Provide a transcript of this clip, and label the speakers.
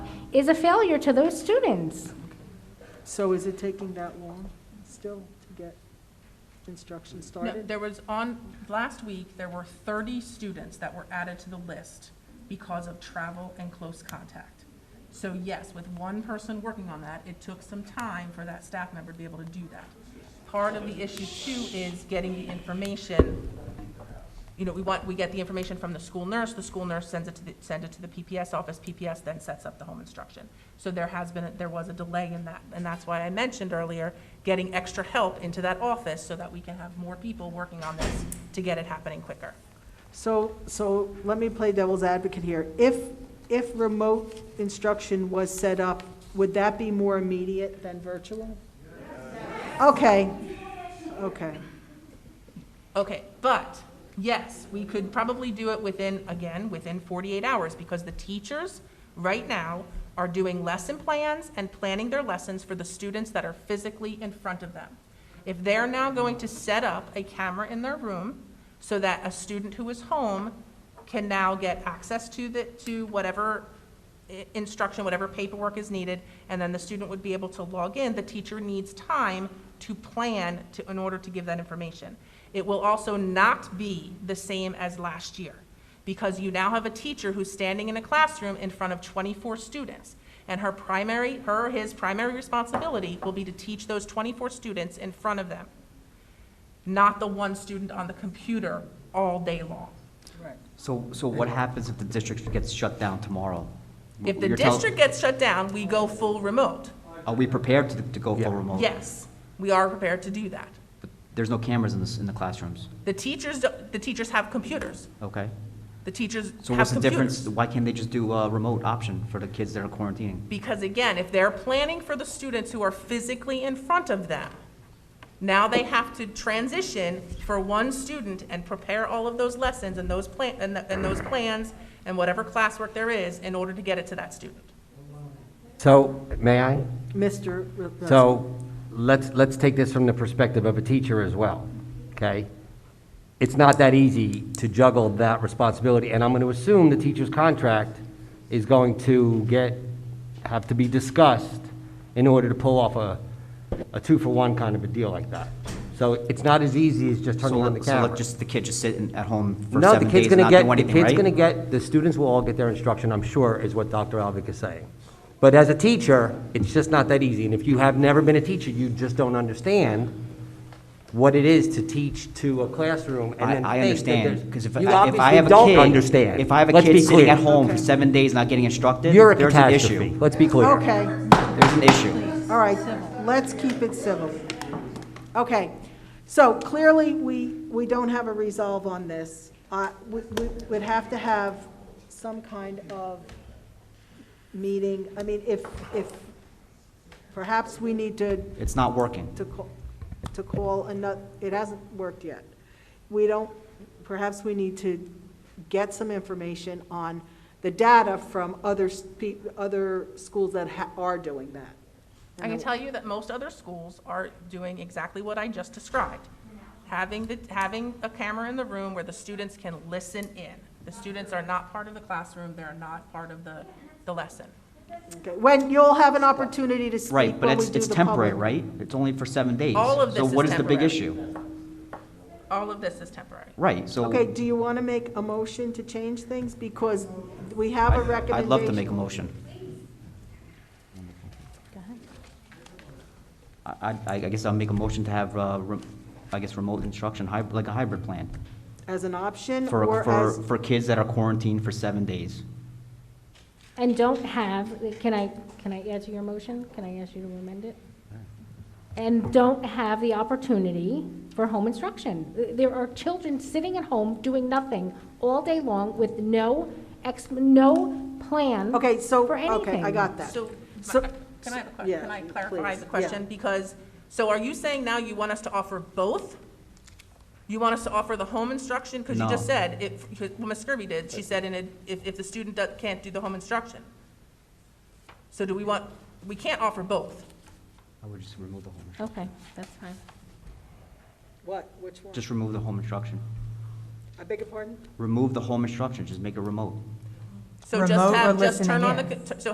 Speaker 1: is a failure to those students.
Speaker 2: So is it taking that long still to get instruction
Speaker 3: No,
Speaker 2: started?
Speaker 3: There was on, last week, there were 30 students that were added to the list because of travel and close contact. So yes, with one person working on that, it took some time for that staff member to be able to do that. Part of the issue too is getting the information, you know, we want, we get the information from the school nurse, the school nurse sends it to the, send it to the PPS office, PPS then sets up the home instruction. So there has been, a- there was a delay in that, and that's why I mentioned earlier, getting extra help into that office so that we can have more people working on this to get it happening quicker.
Speaker 2: So, so let me play devil's advocate here. If, if remote instruction was set up, would that be more immediate than virtual? Okay, okay.
Speaker 3: Okay, but, yes, we could probably do it within, again, within 48 hours, because the teachers, right now, are doing lesson plans and planning their lessons for the students that are physically in front of them. If they're now going to set up a camera in their room, so that a student who is home can now get access to the, to whatever i- instruction, whatever paperwork is needed, and then the student would be able to log in. The teacher needs time to plan to, in order to give that information. It will also not be the same as last year, because you now have a teacher who's standing in a classroom in front of 24 students. And her primary, her, or his primary responsibility will be to teach those 24 students in front of them, not the one student on the computer all day long.
Speaker 4: So, so what happens if the district gets shut down tomorrow?
Speaker 3: If the
Speaker 4: You're tell-
Speaker 3: district gets shut down, we go full remote.
Speaker 4: Are we prepared to, to go full remote?
Speaker 3: Yes, we are prepared to do that.
Speaker 4: But There's no cameras in the, s- in the classrooms,
Speaker 3: The teachers, don't- the teachers have computers.
Speaker 4: okay?
Speaker 3: The teachers
Speaker 4: So
Speaker 3: have
Speaker 4: what's the difference,
Speaker 3: computers.
Speaker 4: why can't they just do a remote option for the kids that are quarantining?
Speaker 3: Because again, if they're planning for the students who are physically in front of them, now they have to transition for one student and prepare all of those lessons and those plan, and, the- and those plans and whatever classwork there is in order to get it to that student.
Speaker 5: So, may I?
Speaker 2: Mr. Re- uh,
Speaker 5: So, let's, let's take this from the perspective of a teacher as well, okay? It's not that easy to juggle that responsibility, and I'm gonna assume the teacher's contract is going to get, have to be discussed in order to pull off a, a two-for-one kind of a deal like that. So it's not as easy as just
Speaker 4: So
Speaker 5: turning on the
Speaker 4: let- So
Speaker 5: camera.
Speaker 4: let just the kid just sit in- at home for
Speaker 5: No, the
Speaker 4: seven
Speaker 5: kid's
Speaker 4: days and
Speaker 5: gonna
Speaker 4: not do
Speaker 5: get, the
Speaker 4: anything, right?
Speaker 5: kid's gonna get, the students will all get their instruction, I'm sure, is what Dr. Alvick is saying. But as a teacher, it's just not that easy, and if you have never been a teacher, you just don't understand what it is to teach to a classroom and
Speaker 4: I,
Speaker 5: then
Speaker 4: I
Speaker 5: think that
Speaker 4: understand,
Speaker 5: there's-
Speaker 4: because if,
Speaker 5: you
Speaker 4: I- if I
Speaker 5: obviously
Speaker 4: have a kid.
Speaker 5: don't understand.
Speaker 4: If I have a
Speaker 5: Let's be
Speaker 4: kid sitting
Speaker 5: clear.
Speaker 4: at home for seven days not getting instructed,
Speaker 5: You're a
Speaker 4: there's an
Speaker 5: catastrophe,
Speaker 4: issue.
Speaker 5: let's be clear.
Speaker 2: Okay.
Speaker 4: There's an issue.
Speaker 2: All right, let's keep it civil. Okay, so clearly, we, we don't have a resolve on this. Uh, We we would have to have some kind of meeting, I mean, if, if, perhaps we need to
Speaker 4: It's not working.
Speaker 2: to call, to call another, it hasn't worked yet. We don't, perhaps we need to get some information on the data from other, spe- other schools that ha- are doing that.
Speaker 3: I can tell you that most other schools are doing exactly what I just described. Having the, having a camera in the room where the students can listen in. The students are not part of the classroom, they're not part of the, the lesson.
Speaker 2: Okay, When you'll have an opportunity to speak
Speaker 4: Right, but
Speaker 2: when we
Speaker 4: it's,
Speaker 2: do
Speaker 4: it's
Speaker 2: the public.
Speaker 4: temporary, right? It's only for seven days.
Speaker 3: All of this is
Speaker 4: So what is the big
Speaker 3: temporary.
Speaker 4: issue?
Speaker 3: All of this is temporary.
Speaker 4: Right, so.
Speaker 2: Okay, do you want to make a motion to change things? Because we have a recommendation.
Speaker 4: I'd love to make a motion. I, I- I guess I'll make a motion to have, uh, re- I guess, remote instruction, hyb- like a hybrid plan
Speaker 2: As an option
Speaker 4: for,
Speaker 2: or
Speaker 4: for,
Speaker 2: as,
Speaker 4: for kids that are quarantined for seven days.
Speaker 1: And don't have, can I, can I add to your motion? Can I ask you to amend it? And don't have the opportunity for home instruction. There are children sitting at home doing nothing all day long with no ex, no plan.
Speaker 2: okay, so,
Speaker 1: for
Speaker 2: okay, I
Speaker 1: anything.
Speaker 2: got that.
Speaker 3: So,
Speaker 2: So-
Speaker 3: can I have a question?
Speaker 2: yeah,
Speaker 3: Can I clarify
Speaker 2: please,
Speaker 3: the
Speaker 2: yeah.
Speaker 3: question? Because, so are you saying now you want us to offer both? You want us to offer the home instruction? Because you just
Speaker 4: No.
Speaker 3: said, if, well, Ms. Skirby did, she said, and it- if, if the student do- can't do the home instruction. So do we want, we can't offer both.
Speaker 4: I would just remove the home,
Speaker 1: Okay, that's fine.
Speaker 2: What, which one?
Speaker 4: just remove the home instruction.
Speaker 2: I beg your pardon?
Speaker 4: Remove the home instruction, just make it remote.
Speaker 3: So just
Speaker 6: Remote or
Speaker 3: have, just turn
Speaker 6: listening
Speaker 3: on the,
Speaker 6: in?
Speaker 3: co- so